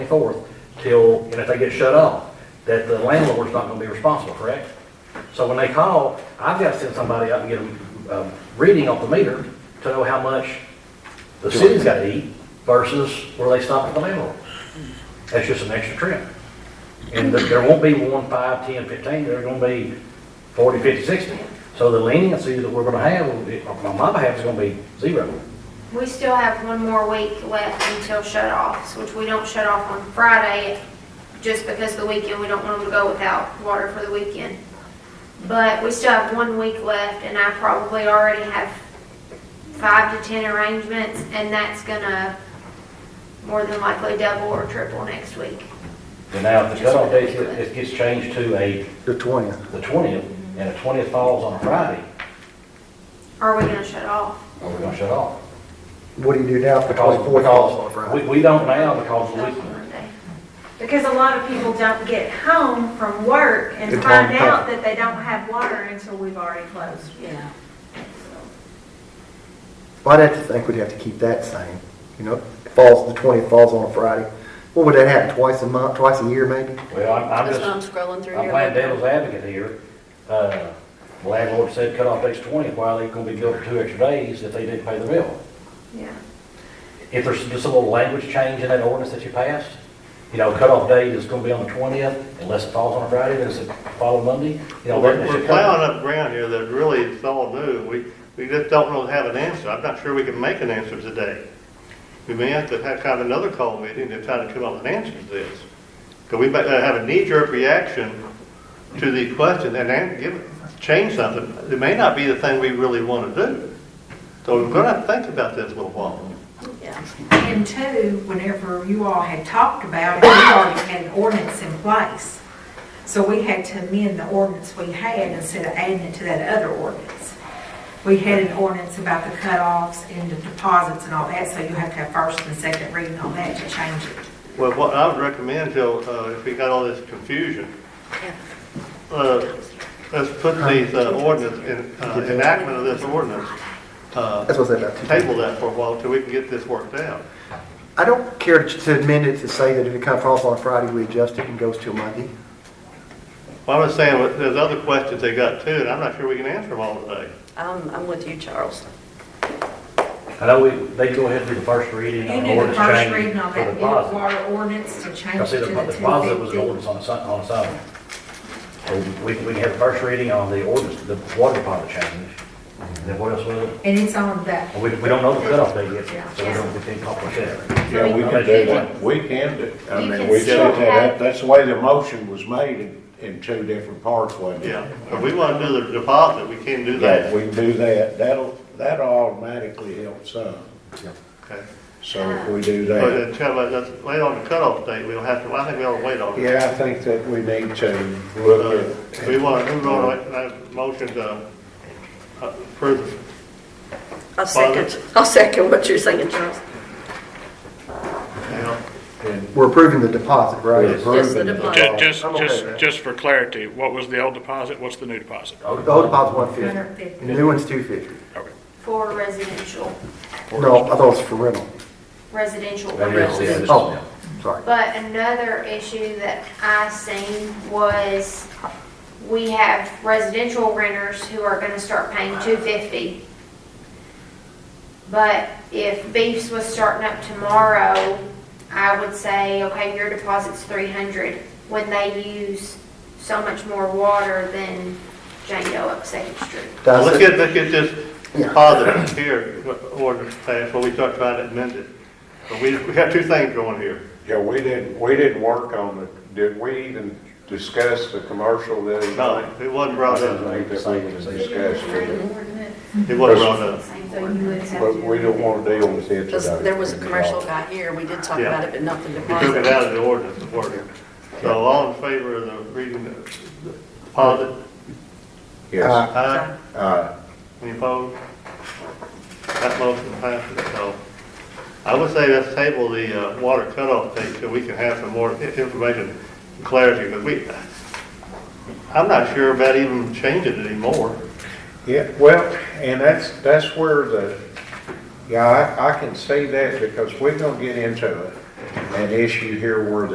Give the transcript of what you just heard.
forth till, and if they get shut off, that the landlord's not gonna be responsible, correct? So when they call, I've gotta send somebody out and get a, a reading off the meter to know how much the city's gotta eat versus where they stop at the landlord. That's just an extra trip. And there- there won't be one, five, ten, fifteen, there are gonna be forty, fifty, sixty. So the leniency that we're gonna have, on my behalf, is gonna be zero. We still have one more week left until shut-offs, which we don't shut off on Friday, just because the weekend, we don't want them to go without water for the weekend. But we still have one week left, and I probably already have five to 10 arrangements, and that's gonna more than likely double or triple next week. And now, if the cutoff date, it gets changed to a, The twentieth. the twentieth, and the twentieth falls on a Friday, Are we gonna shut off? are we gonna shut off? What do you do now for Because, twenty-fourth? because, we, we don't now because of the That's weekend. Monday. Because a lot of people don't get home from work and Good find time, out that they don't have water until we've already closed. Yeah. Well, I'd have to think we'd have to keep that same, you know, it falls, the twentieth falls on a Friday. What would that happen, twice a month, twice a year maybe? Well, I'm, I'm That's just, what I'm scrolling through I'm here. playing devil's advocate here. Uh, the landlord said cutoff date's twentieth, why are they gonna be billed for two extra days if they didn't pay the bill? Yeah. If there's just a little language change in that ordinance that you passed, you know, cutoff date is gonna be on the twentieth, unless it falls on a Friday, then it's the following Monday, you know. We're that we're should plowing up ground here that really is all new. We, we just don't really have an answer. I'm not sure we can make an answer today. We may have to have kind of another call meeting to try to come up with an answer to this. Because we might have a knee-jerk reaction to the question and then give, change something. It may not be the thing we really want to do. So we're going to have to think about this a little while. Yeah. And two, whenever you all had talked about it, we already had an ordinance in place. So we had to amend the ordinance we had instead of adding it to that other ordinance. We had an ordinance about the cutoffs and the deposits and all that, so you have to have first and second reading on that to change it. Well, what I would recommend, Joe, uh, if we got all this confusion, uh, let's put these uh, ordinance, in- uh, enactment of this ordinance, uh, That's what I said about two. table that for a while till we can get this worked out. I don't care to- to amend it to say that if it comes falls on a Friday, we adjust it and goes till Monday. Well, I'm just saying, well, there's other questions they got too, and I'm not sure we can answer them all today. I'm, I'm with you, Charles. I know we, they go ahead and do the first reading You on knew the ordinance first change reading on for that the new deposit. water ordinance to change I it see to the the the deposit was an 250. ordinance on its, on its own. So we, we can have the first reading on the ordinance, the water deposit change. Then what else was it? And it's on the, And We, we don't know the cutoff date yet, so we don't, we can't accomplish that. Yeah, we can do that, we can do, I You mean, can we did still it, have- that, that's the way the motion was made in, in two different parts, wasn't it? Yeah, if we want to do the deposit, we can do Yeah, that. we can do that, that'll, that'll automatically help some, Okay. so if we do But that. until, uh, that's, wait on the cutoff date, we'll have to, I think we ought to wait on it. Yeah, I think that we need to Uh, look If at. we want, we want to, that motion to uh, approve I'll second, I'll second what you're saying, Charles. you know, and We're approving the deposit, we're right? Yes, the approving the deposit. deposit. Just, I'm okay with that. just, just for clarity, what was the old deposit, what's the new deposit? The whole deposit's one fifty, 250. the new one's two fifty. For residential, No, I thought it was for rental. residential. Maybe it's the- rentals. Oh, sorry. But another issue that I seen was we have residential renters who are gonna start paying two fifty. But if Beefs was starting up tomorrow, I would say, okay, your deposit's three hundred when they use so much more water than Jane Doe up Second Street. Well, Does Let's it- get, let's get this positive here, what ordinance passed, before we start trying to amend it. But we, we got two things going here. Yeah, we didn't, we didn't work on it, did we even discuss the commercial the other No, night? it wasn't I brought don't up. think that we even discussed it, It wasn't brought up. but we don't want to deal with it Because today. there was a commercial guy here, we did talk Yeah. about it, but nothing We took it deposit. out of the ordinance, the word. So all in favor of the reading, the the deposit, Yes, aye, uh, any opposed? That motion passes, so. I would say let's table the uh, water cutoff date till we can have some more i- information, and clarity, because we, I'm not sure about even changing it anymore. Yeah, well, and that's, that's where the, yeah, I, I can see that because we're gonna get into it. an issue here where the